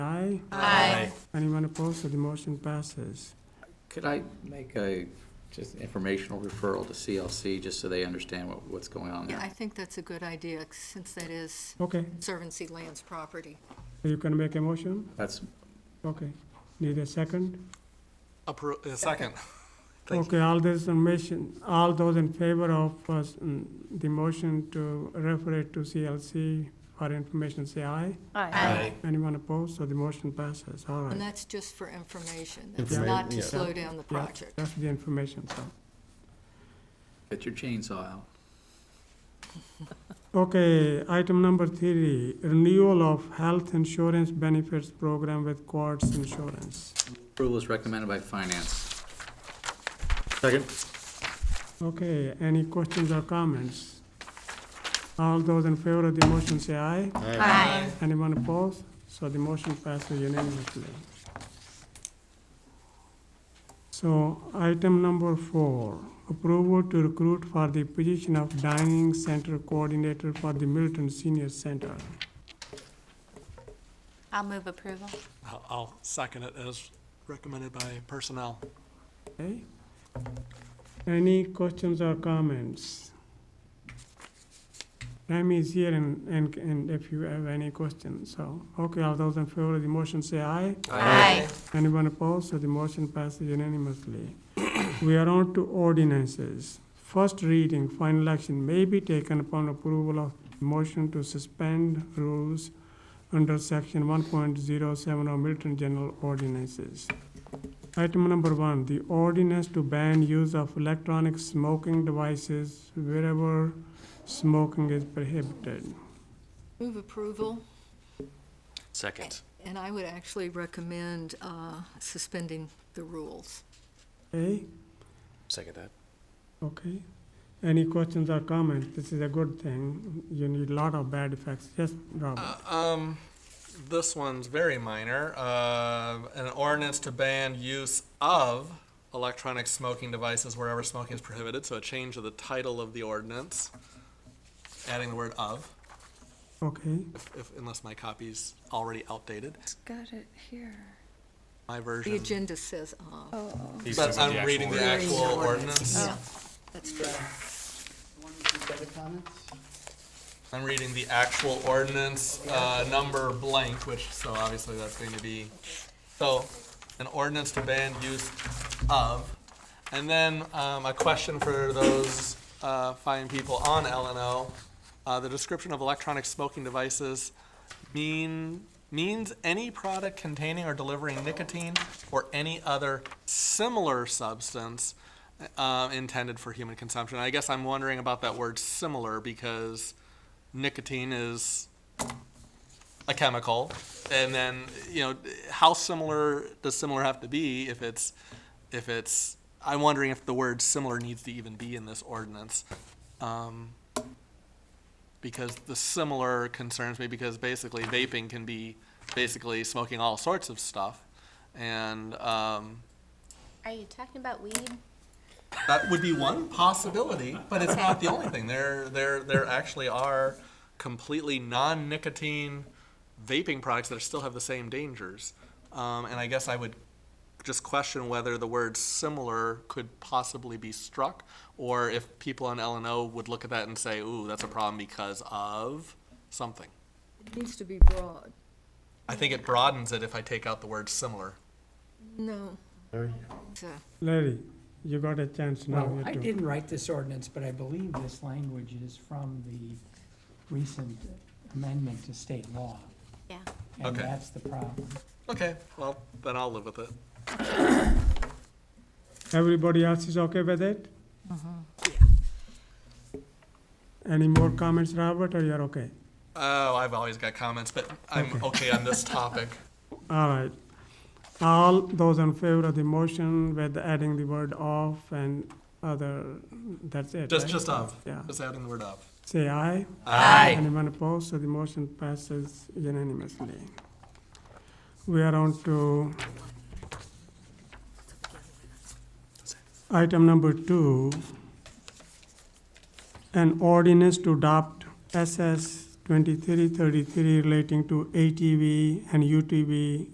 aye? Aye. Anyone opposed? So the motion passes. Could I make a, just informational referral to CLC, just so they understand what, what's going on Yeah, there? I think that's a good idea, since that is Okay, Conservancy Land's property. you can make a motion? That's, Okay. Need a second? Appro, uh, second. Thank Okay, all those information, all those in favor of uh, mm, the motion to refer it to CLC for information, say aye. Aye. Anyone opposed? So the motion passes. All And right. that's just for information. That's not to slow down the Yeah, project. That's the information, so. get your chainsaw out. Okay, item number three, renewal of health insurance benefits program with Quartz Insurance. Approval is recommended by finance. Second? Okay, any questions or comments? All those in favor of the motion, say aye. Aye. Anyone opposed? So the motion passes unanimously. So item number four, approval to recruit for the position of dining center coordinator for the Milton Senior Center. I'll move approval. I'll, I'll second it as recommended by personnel. Okay? Any questions or comments? Remy is here and, and, and if you have any questions, so, okay, all those in favor of the motion say aye. Aye. Anyone opposed? So the motion passes unanimously. We are on to ordinances. First reading, final action may be taken upon approval of motion to suspend rules under section one point zero seven of Milton General Ordinances. Item number one, the ordinance to ban use of electronic smoking devices wherever smoking is prohibited. Move approval, Second. and I would actually recommend uh, suspending the rules. Okay, Second that. okay. Any questions or comments? This is a good thing. You need a lot of bad effects. Yes, Robert? Um, this one's very minor. Uh, an ordinance to ban use of electronic smoking devices wherever smoking is prohibited, so a change of the title of the ordinance, adding the word of, Okay, if, if, unless my copy's already outdated. Got it here. My The version, agenda says, uh, Oh. but I'm reading the Oh, actual ordinance. yeah, that's true. I'm reading the actual ordinance, uh, number blank, which, so obviously that's going to be, so, an ordinance to ban use of. And then, um, a question for those, uh, fine people on LNO. Uh, the description of electronic smoking devices mean, means any product containing or delivering nicotine or any other similar substance, uh, intended for human consumption. I guess I'm wondering about that word similar because nicotine is a chemical and then you know how similar does similar have to be if it's if it's i'm wondering if the word similar needs to even be in this ordinance um, because the similar concerns me because basically vaping can be basically smoking all sorts of stuff and um, Are you talking about weed? that would be one possibility, but it's not the only thing. There, there, there actually are completely non-nicotine vaping products that still have the same dangers. Um, and I guess I would just question whether the word similar could possibly be struck, or if people on L and O would look at that and say, "Ooh, that's a problem because of something." It needs to be broad. I think it broadens it if I take out the word similar. No. Larry? So- Larry, you got a chance now. Well, you I two. didn't write this ordinance, but I believe this language is from the recent amendment to state law. Yeah. And Okay. that's the problem. Okay, well then I'll live with it. Everybody else is okay with it? Any more comments, Robert, or you're okay? Oh, I've always got comments, but I'm okay on this topic. All right. All those in favor of the motion with adding the word "of" and other, that's it, Just, right? just of. Yeah. Just adding the word of. Say aye. Aye. Anyone opposed? So the motion passes unanimously. We are on to item number two. An ordinance to adopt SS twenty-three thirty-three relating to ATV and UTV